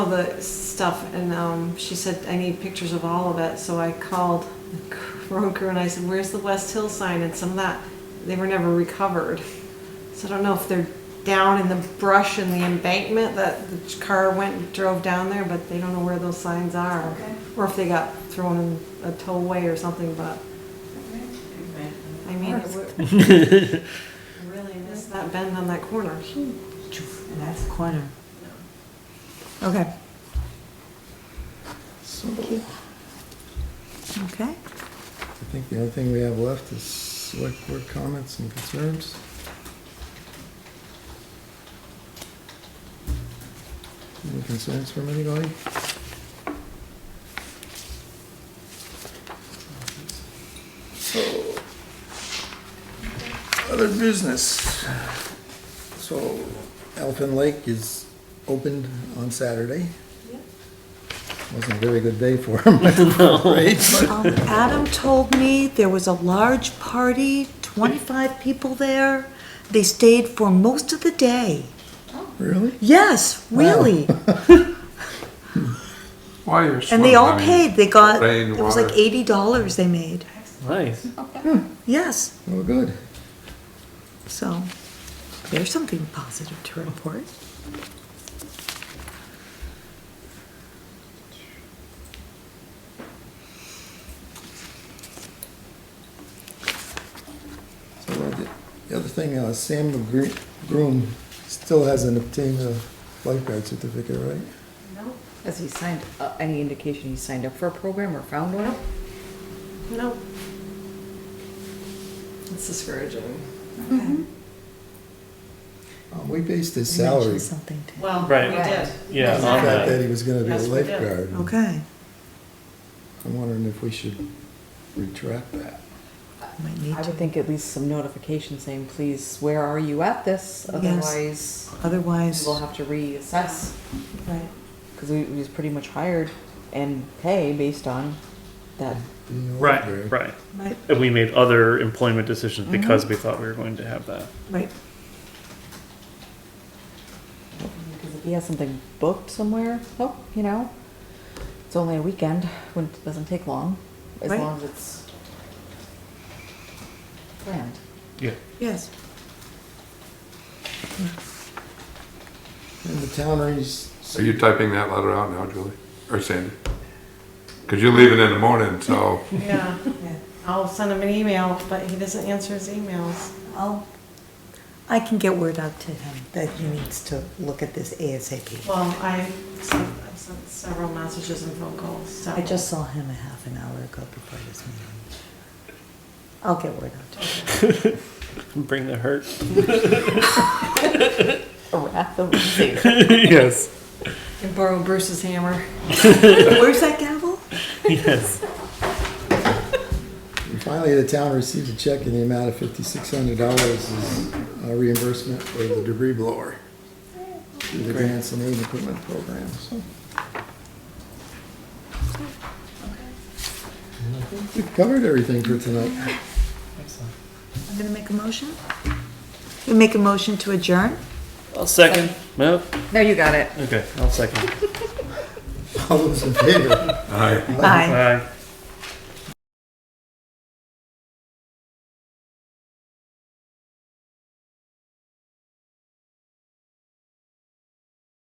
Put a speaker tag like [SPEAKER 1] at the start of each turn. [SPEAKER 1] all the stuff, and um, she said, I need pictures of all of it, so I called road crew and I said, where's the West Hill sign, and some of that, they were never recovered. So I don't know if they're down in the brush in the embankment that the car went and drove down there, but they don't know where those signs are.
[SPEAKER 2] Okay.
[SPEAKER 1] Or if they got thrown in a tollway or something, but, I mean, it's- I really missed that bend on that corner.
[SPEAKER 2] And that's the corner. Okay. Thank you. Okay,
[SPEAKER 3] I think the only thing we have left is select board comments and concerns. Any concerns from anybody? So, other business. So Elfin Lake is opened on Saturday. Wasn't a very good day for him, right? But-
[SPEAKER 2] um, Adam told me there was a large party, twenty-five people there. They stayed for most of the day.
[SPEAKER 3] Really?
[SPEAKER 2] Yes, really.
[SPEAKER 4] Why are
[SPEAKER 2] And they all
[SPEAKER 4] swimming?
[SPEAKER 2] paid, they got,
[SPEAKER 4] Rain,
[SPEAKER 2] it was like
[SPEAKER 4] water.
[SPEAKER 2] eighty dollars they made, Hmm,
[SPEAKER 5] Nice.
[SPEAKER 2] yes,
[SPEAKER 3] Well, good.
[SPEAKER 2] so. There's something positive to report.
[SPEAKER 3] So uh, the- the other thing, uh, Sam McGre- Groom still hasn't obtained a lifeguard certificate, right?
[SPEAKER 6] Has he signed, uh, any indication he signed up for a program or found one?
[SPEAKER 1] Nope. It's discouraging.
[SPEAKER 2] Mm-hmm.
[SPEAKER 3] Um, We based his
[SPEAKER 2] You mentioned
[SPEAKER 3] salary on
[SPEAKER 2] Something to.
[SPEAKER 1] Well,
[SPEAKER 5] Right.
[SPEAKER 1] we did.
[SPEAKER 5] Yeah,
[SPEAKER 3] the
[SPEAKER 5] on
[SPEAKER 3] fact
[SPEAKER 5] that.
[SPEAKER 3] that he was gonna be a
[SPEAKER 1] Yes, we did.
[SPEAKER 3] lifeguard.
[SPEAKER 2] Okay,
[SPEAKER 3] I'm wondering if we should retract that.
[SPEAKER 2] might need
[SPEAKER 6] I would
[SPEAKER 2] to,
[SPEAKER 6] think at least some notification saying, please, where are you at this? Otherwise,
[SPEAKER 2] otherwise,
[SPEAKER 6] we'll have to reassess,
[SPEAKER 2] right.
[SPEAKER 6] because we, we was pretty much hired and pay based on that.
[SPEAKER 2] Mm-hmm.
[SPEAKER 3] being a
[SPEAKER 5] Right,
[SPEAKER 3] lifeguard.
[SPEAKER 5] right.
[SPEAKER 2] Right,
[SPEAKER 5] And we made other employment decisions
[SPEAKER 6] Mm-hmm.
[SPEAKER 5] because we thought we were going to have that.
[SPEAKER 2] right.
[SPEAKER 6] Because if he has something booked somewhere, oh, you know, it's only a weekend, when it doesn't take long, as
[SPEAKER 2] Right.
[SPEAKER 6] long as it's planned.
[SPEAKER 5] Yeah.
[SPEAKER 2] Yes.
[SPEAKER 3] And the town raised,
[SPEAKER 4] Are you typing that letter out now, Julie? Or Sandy? Because you're leaving in the morning, so
[SPEAKER 1] Yeah, I'll send him an email, but he doesn't answer his emails.
[SPEAKER 2] I'll, I can get word out to him that he needs to look at this ASAP.
[SPEAKER 1] Well, I sent, I've sent several messages and phone calls, so.
[SPEAKER 2] I just saw him a half an hour ago before this meeting. I'll get word out to him.
[SPEAKER 5] Bring the hurt.
[SPEAKER 6] A wrath of Savior.
[SPEAKER 5] yes.
[SPEAKER 1] And borrow Bruce's hammer.
[SPEAKER 2] Where's that gavel?
[SPEAKER 5] Yes.
[SPEAKER 3] and finally, the town received a check in the amount of fifty-six hundred dollars as uh, reimbursement for the debris blower through the grants and aid equipment program, so. And I think We've covered everything for tonight.
[SPEAKER 2] I'm gonna make a motion. You make a motion to adjourn?
[SPEAKER 5] I'll second. No.
[SPEAKER 6] No, you got it.
[SPEAKER 5] Okay. I'll second.
[SPEAKER 3] All those in favor?
[SPEAKER 4] I.
[SPEAKER 2] Aye.
[SPEAKER 5] Bye.